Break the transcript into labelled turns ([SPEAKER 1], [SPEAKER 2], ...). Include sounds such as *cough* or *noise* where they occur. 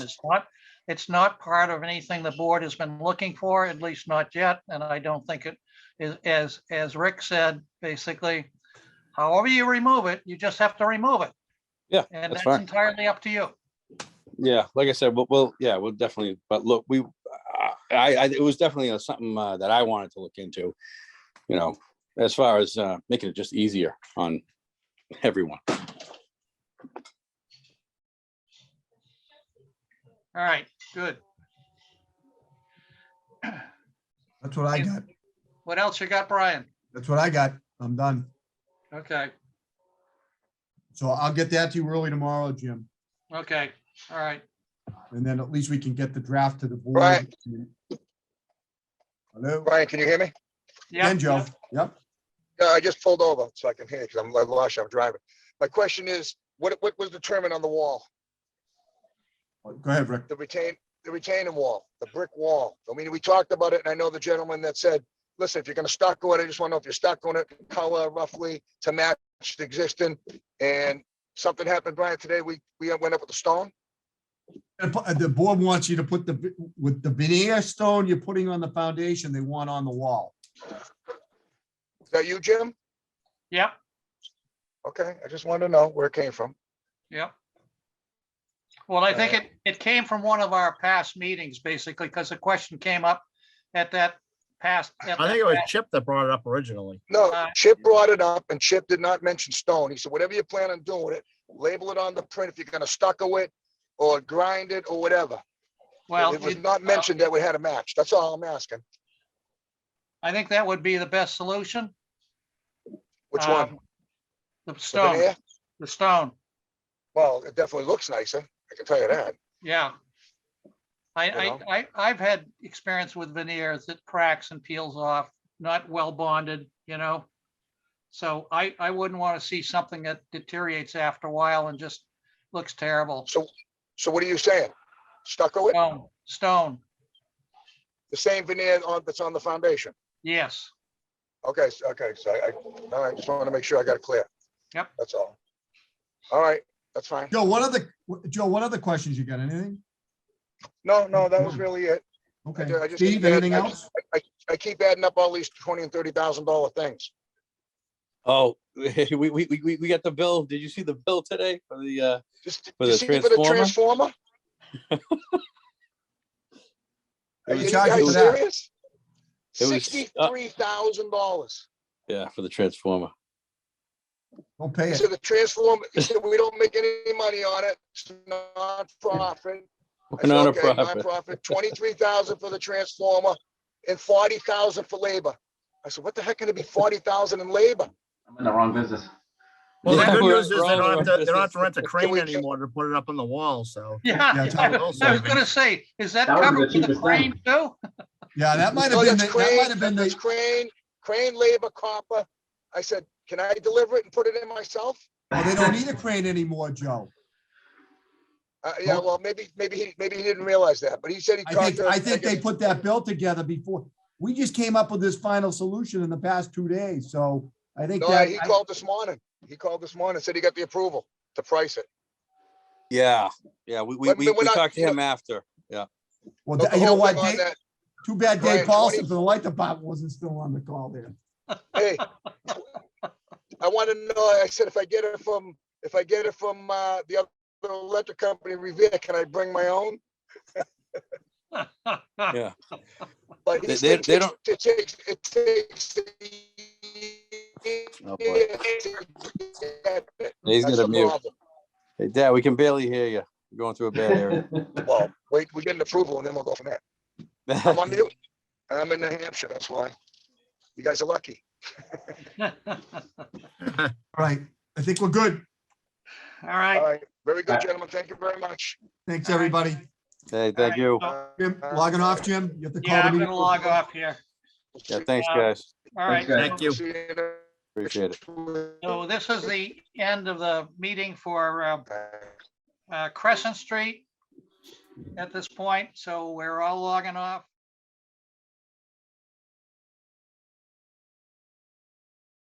[SPEAKER 1] It's not, it's not part of anything the board has been looking for, at least not yet, and I don't think it is, as, as Rick said, basically, however you remove it, you just have to remove it.
[SPEAKER 2] Yeah,
[SPEAKER 1] And that's
[SPEAKER 2] that's fine.
[SPEAKER 1] entirely up to you.
[SPEAKER 2] Yeah, like I said, we'll, we'll, yeah, we'll definitely, but look, we, I, I, it was definitely uh, something uh, that I wanted to look into. You know, as far as uh, making it just easier on everyone.
[SPEAKER 1] All right, good.
[SPEAKER 3] That's what I got.
[SPEAKER 1] What else you got, Brian?
[SPEAKER 3] That's what I got. I'm done.
[SPEAKER 1] Okay,
[SPEAKER 3] So I'll get that to you early tomorrow, Jim,
[SPEAKER 1] okay, all right.
[SPEAKER 3] and then at least we can get the draft to the board.
[SPEAKER 4] Right.
[SPEAKER 3] Hello,
[SPEAKER 4] Brian, can you hear me?
[SPEAKER 1] Yeah,
[SPEAKER 3] and Joe, yep,
[SPEAKER 4] No, I just pulled over so I can hear you because I'm I lost you. I'm driving. My question is, what, what was determined on the wall?
[SPEAKER 3] go ahead, Rick.
[SPEAKER 4] The retain, the retaining wall, the brick wall? I mean, we talked about it and I know the gentleman that said, listen, if you're gonna stucco it, I just want to know if you're stuccoing it, color roughly to match the existing. And something happened, Brian, today. We, we went up with the stone.
[SPEAKER 3] And pu- The board wants you to put the, vi- with the veneer stone you're putting on the foundation, they want on the wall.
[SPEAKER 4] Is that you, Jim?
[SPEAKER 1] Yep,
[SPEAKER 4] Okay, I just wanted to know where it came from.
[SPEAKER 1] yep. Well, I think it, it came from one of our past meetings, basically, because the question came up at that past. at
[SPEAKER 5] I
[SPEAKER 1] that
[SPEAKER 5] think it was
[SPEAKER 1] past-
[SPEAKER 5] Chip that brought it up originally.
[SPEAKER 4] No,
[SPEAKER 1] Uh,
[SPEAKER 4] Chip brought it up and Chip did not mention stone. He said, whatever you plan on doing it, label it on the print if you're gonna stucco it or grind it or whatever.
[SPEAKER 1] Well.
[SPEAKER 4] It was
[SPEAKER 1] it-
[SPEAKER 4] not mentioned that we had a match. That's all I'm asking.
[SPEAKER 1] I think that would be the best solution.
[SPEAKER 4] Which one?
[SPEAKER 1] Um, The
[SPEAKER 4] The
[SPEAKER 1] stone,
[SPEAKER 4] veneer?
[SPEAKER 1] the stone,
[SPEAKER 4] Well, it definitely looks nicer. I can tell you that.
[SPEAKER 1] yeah. I,
[SPEAKER 4] You
[SPEAKER 1] I,
[SPEAKER 4] know?
[SPEAKER 1] I, I've had experience with veneers that cracks and peels off, not well bonded, you know? So I, I wouldn't want to see something that deteriorates after a while and just looks terrible.
[SPEAKER 4] So, so what are you saying? Stucco it?
[SPEAKER 1] Stone, stone,
[SPEAKER 4] The same veneer on, that's on the foundation?
[SPEAKER 1] yes,
[SPEAKER 4] Okay, s- okay, so I, I- all right, just wanted to make sure I got it clear.
[SPEAKER 1] Yep.
[SPEAKER 4] That's all. All right, that's fine.
[SPEAKER 3] Joe, what other, wh- Joe, what other questions you got? Anything?
[SPEAKER 4] No, no, that was really it. I
[SPEAKER 3] Okay,
[SPEAKER 4] ju- I just keep
[SPEAKER 3] Steve,
[SPEAKER 4] add-
[SPEAKER 3] anything
[SPEAKER 4] I just-
[SPEAKER 3] else?
[SPEAKER 4] I, I- I keep adding up all these twenty and thirty thousand dollar things.
[SPEAKER 2] Oh, *laughs* we, we, we, we we got the bill. Did you see the bill today for the, uh,
[SPEAKER 4] Just
[SPEAKER 2] For
[SPEAKER 4] you
[SPEAKER 2] the
[SPEAKER 4] see for the
[SPEAKER 2] transformer?
[SPEAKER 4] transformer? Are
[SPEAKER 3] They
[SPEAKER 4] you
[SPEAKER 3] charge you
[SPEAKER 4] guys
[SPEAKER 3] for that.
[SPEAKER 4] serious?
[SPEAKER 2] It was- uh,
[SPEAKER 4] Sixty-three thousand dollars.
[SPEAKER 2] yeah, for the transformer? *laughs*
[SPEAKER 3] Don't pay
[SPEAKER 4] He
[SPEAKER 3] it.
[SPEAKER 4] said the transformer, he said, we don't make any money on it. It's non-profit. I
[SPEAKER 2] We're
[SPEAKER 4] said,
[SPEAKER 2] not a
[SPEAKER 4] "Okay,
[SPEAKER 2] profit.
[SPEAKER 4] Nonprofit, twenty-three thousand for the transformer and forty thousand for labor. I said, what the heck can it be forty thousand in labor?
[SPEAKER 6] I'm in the wrong business.
[SPEAKER 5] Well, the
[SPEAKER 2] Yeah, *laughs*
[SPEAKER 5] good
[SPEAKER 2] we're-
[SPEAKER 5] news is they
[SPEAKER 2] we're all
[SPEAKER 5] don't have
[SPEAKER 2] over
[SPEAKER 5] to, they don't have to
[SPEAKER 2] business.
[SPEAKER 5] rent *laughs* a crane
[SPEAKER 4] we-
[SPEAKER 5] anymore to put it up on the wall, so.
[SPEAKER 1] *laughs* yeah.
[SPEAKER 3] it's
[SPEAKER 1] I
[SPEAKER 3] all-
[SPEAKER 1] was I was gonna say, is that
[SPEAKER 6] That was
[SPEAKER 1] covered
[SPEAKER 6] the
[SPEAKER 1] with the
[SPEAKER 6] cheapest
[SPEAKER 1] crane too? *laughs*
[SPEAKER 3] Yeah, that might have
[SPEAKER 4] Oh,
[SPEAKER 3] been,
[SPEAKER 4] that's
[SPEAKER 3] the- that might
[SPEAKER 4] crane,
[SPEAKER 3] have been
[SPEAKER 4] that's
[SPEAKER 3] the,
[SPEAKER 4] crane, crane labor copper. I said, can I deliver it and put it in myself?
[SPEAKER 3] oh, they don't need a crane anymore, Joe.
[SPEAKER 4] Uh, yeah,
[SPEAKER 3] Well-
[SPEAKER 4] well, maybe, maybe he, maybe he didn't realize that, but he said he
[SPEAKER 3] I
[SPEAKER 4] talked
[SPEAKER 3] think,
[SPEAKER 4] to.
[SPEAKER 3] I think they
[SPEAKER 4] guess-
[SPEAKER 3] put that bill together before, we just came up with this final solution in the past two days, so I think
[SPEAKER 4] No,
[SPEAKER 3] that,
[SPEAKER 4] he
[SPEAKER 3] I-
[SPEAKER 4] called this morning. He called this morning, said he got the approval to price it.
[SPEAKER 2] Yeah, yeah, we, we,
[SPEAKER 4] But-
[SPEAKER 2] we
[SPEAKER 4] but we're
[SPEAKER 2] we
[SPEAKER 4] not-
[SPEAKER 2] talked to him after. Yeah,
[SPEAKER 3] well,
[SPEAKER 4] But the
[SPEAKER 3] you know
[SPEAKER 4] whole
[SPEAKER 3] what,
[SPEAKER 4] thing on
[SPEAKER 3] Dave-
[SPEAKER 4] that-
[SPEAKER 3] too bad
[SPEAKER 4] Brian,
[SPEAKER 3] Dave Paulson
[SPEAKER 4] 20
[SPEAKER 3] for the light department wasn't still on the call there. *laughs*
[SPEAKER 4] Hey, I want to know, I said, if I get it from, if I get it from, uh, the other electric company, Revere, can I bring my own?
[SPEAKER 2] yeah. They-
[SPEAKER 4] But he
[SPEAKER 2] they-
[SPEAKER 4] said
[SPEAKER 2] they
[SPEAKER 4] it takes- it takes, it takes.
[SPEAKER 2] Oh, boy. He's
[SPEAKER 4] He's
[SPEAKER 2] gonna mute. Hey, Dad, we can barely hear you. We're going through a bad area.
[SPEAKER 4] Well, wait, we get an approval and then we'll go from there. I'm on mute. I'm in New Hampshire, that's why. You guys are lucky.
[SPEAKER 3] All right, I think we're good.
[SPEAKER 1] All
[SPEAKER 4] All
[SPEAKER 1] right.
[SPEAKER 4] right, very good, gentlemen. Thank you very much. Uh,
[SPEAKER 3] Thanks,
[SPEAKER 1] All right.
[SPEAKER 3] everybody.
[SPEAKER 2] *laughs* Hey, thank
[SPEAKER 4] *laughs*
[SPEAKER 2] you.
[SPEAKER 3] Jim, logging off, Jim. You have to call.
[SPEAKER 1] Yeah,
[SPEAKER 3] the
[SPEAKER 1] I'm
[SPEAKER 3] meeting.
[SPEAKER 1] gonna log off here.
[SPEAKER 2] Yeah, thanks,
[SPEAKER 1] Um,
[SPEAKER 2] guys.
[SPEAKER 1] All right.
[SPEAKER 6] guys.
[SPEAKER 5] Thank you.
[SPEAKER 4] See you in a-
[SPEAKER 2] Appreciate it.
[SPEAKER 1] So this is the end of the meeting for uh, uh, Crescent Street at this point. So we're all logging off.